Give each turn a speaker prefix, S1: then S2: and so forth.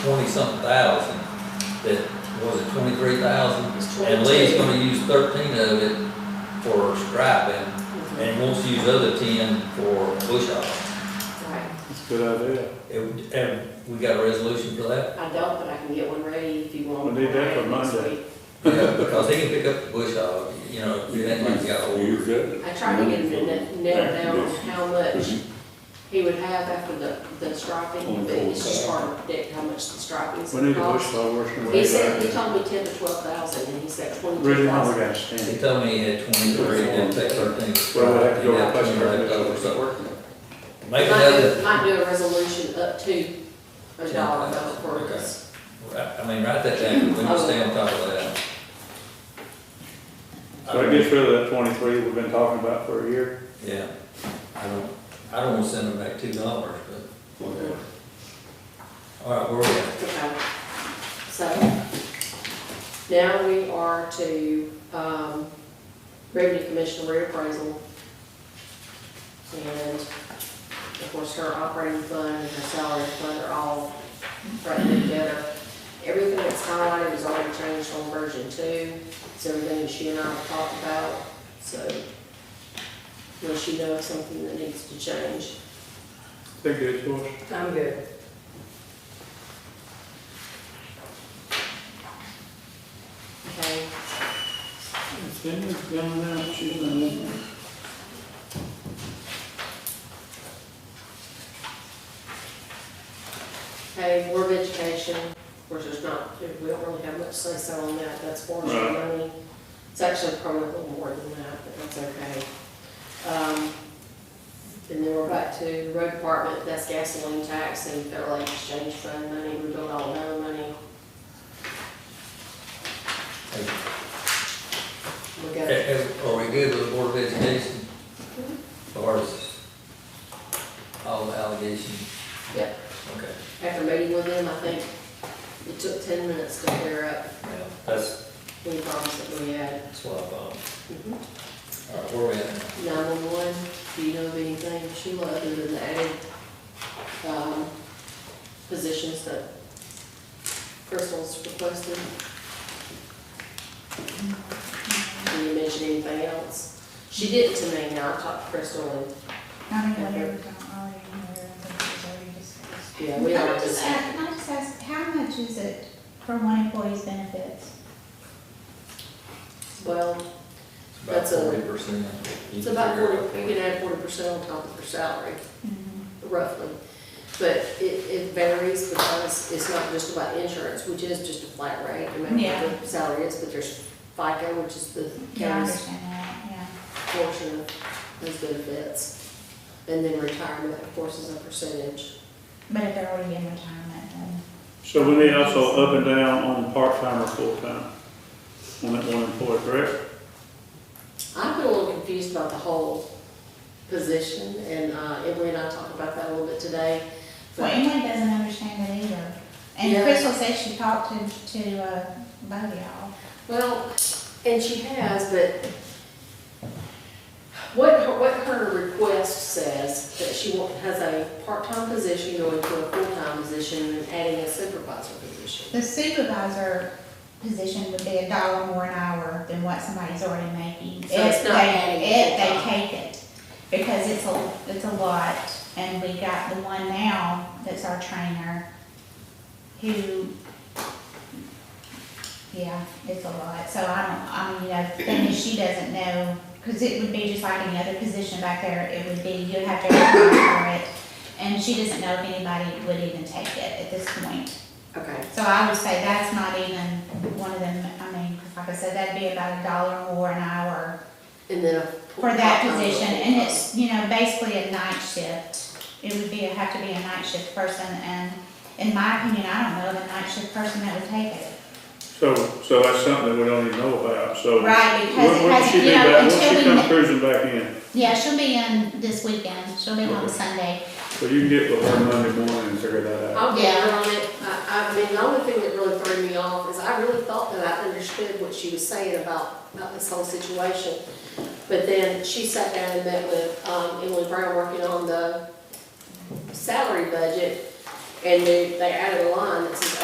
S1: twenty-something thousand, that, was it twenty-three thousand?
S2: It's
S1: And Lee's
S2: 22.
S1: gonna use thirteen of it for striping, and wants to use other ten for bush hog.
S2: Right.
S3: It's a good idea.
S1: And, and we got a resolution for that?
S2: I don't, but I can get one ready if you want.
S3: We need that for
S2: next
S3: Monday.
S2: week.
S1: Yeah, because he can pick up the bush hog, you know, if that money's got old.
S4: You good?
S2: I tried to get him to na- nail down on how much
S4: Is he-
S2: he would have after the, the striping,
S4: On
S2: but it's just
S4: cold
S2: hard to predict how much the striping's
S3: We need
S2: gonna
S3: to push
S2: cost.
S3: forward. and we
S2: He
S3: need
S2: said,
S3: to-
S2: he told me ten to twelve thousand, and he said
S3: Really,
S2: twenty-two
S3: now we
S2: thousand.
S3: gotta
S1: He
S3: stand.
S1: told me he had twenty-three, and take thirteen.
S3: Well, we have to
S1: He
S3: go
S1: got
S3: request
S1: 20 left
S3: permit.
S1: over, so
S3: Working.
S1: Make
S2: Might,
S1: another,
S2: do- might do a resolution up to a dollar amount for
S1: Okay.
S2: us.
S1: I I mean, write that down, we need to stay on top of that.
S3: So it gets rid of that twenty-three we've been talking about for a year.
S1: Yeah, I don't, I don't wanna send them back two dollars, but,
S4: Whatever.
S1: all right, where we at?
S2: Okay, so now we are to um, Revenue Commission reappraisal. And of course, her operating fund and her salary fund are all right there together. Everything that's highlighted is already changed on version two. It's everything that she and I have talked about, so unless you know of something that needs to change.
S3: They're good for us.
S2: I'm good. Okay,
S3: Cindy's gone down, she's not in.
S2: okay, Board of Education, of course, there's not, we don't really have much say so on that, that's board's
S3: Right.
S2: money. It's actually probably a little more than that, but that's okay. Um, And then we're back to Road Department, that's gasoline tax and Federal Aid Exchange Fund money, we don't all know money. We got
S1: Eh, eh, Are we good with the Board of Education? As far as all the allegations?
S2: Yep.
S1: Okay,
S2: After meeting with them, I think it took ten minutes to clear up
S1: yeah, that's,
S2: any problems that we had.
S1: that's what I thought. All right, where we at? now?
S2: Nine-one-one, do you know of anything, Sheila, other than the added, um, positions that Crystal's requested? Can you mention anything else? She did to me, now I talked to Crystal, and,
S5: I mean, I never got already aware of it, it was already discussed.
S2: yeah, we
S5: Can
S2: all
S5: I just
S2: just,
S5: ask, can I just ask, how much is it for one employee's benefits?
S2: well,
S1: It's
S2: That's a-
S1: About forty percent.
S2: it's about forty, you can add forty percent on top of her salary. Mm-hmm. roughly. But it, it varies because it's not just about insurance, which is just a flat rate, no matter what the salary is, but there's FICA, which is the
S5: Yeah, I
S2: county's
S5: understand that, yeah.
S2: portion of those benefits. And then retirement, of course, is a percentage.
S5: But if they're already in retirement, then,
S3: So we need also up and down on part-time or full-time. On that one employee, correct?
S2: I've been a little confused about the whole position, and uh, Emily and I talked about that a little bit today.
S5: well,
S2: But
S5: Emily doesn't understand it either.
S2: Yeah.
S5: And Crystal says she talked to, to, uh, both of y'all.
S2: Well, and she has, but what, her- what her request says, that she wa- has a part-time position going to a full-time position and adding a supervisor position.
S5: The supervisor position would be a dollar more an hour than what somebody's already making.
S2: So it's
S5: if
S2: not
S5: they-
S2: adding
S5: If
S2: to the
S5: they take it, because it's a, it's a lot, and we got the one now that's our trainer, who, yeah, it's a lot, so I don't, I mean, you know, thing is, she doesn't know, because it would be just like any other position back there, it would be, you'd have to apply for it, and she doesn't know if anybody would even take it at this point.
S2: Okay,
S5: So I would say that's not even one of them, I mean, 'cause like I said, that'd be about a dollar more an hour
S2: and then a.
S5: for that
S2: part-time
S5: position,
S2: role.
S5: and it's, you know, basically a night shift. It would be, have to be a night shift person, and in my opinion, I don't know of a night shift person that would take it.
S3: So, so that's something that we don't even know about, so.
S5: Right, because
S3: When,
S5: it
S3: when she be
S5: hasn't, you know,
S3: back, when she
S5: until
S3: comes
S5: we,
S3: cruising back in,
S5: yeah, she'll be in this weekend, she'll be on
S3: Okay.
S5: Sunday.
S3: so you can get with her Monday morning and figure that out.
S2: I'll get her on it. I, I mean, the only thing that really threw me off is I really thought that I understood what she was saying about, about this whole situation. But then she sat down and met with, um, Emily Brown working on the salary budget. And they, they added a line that says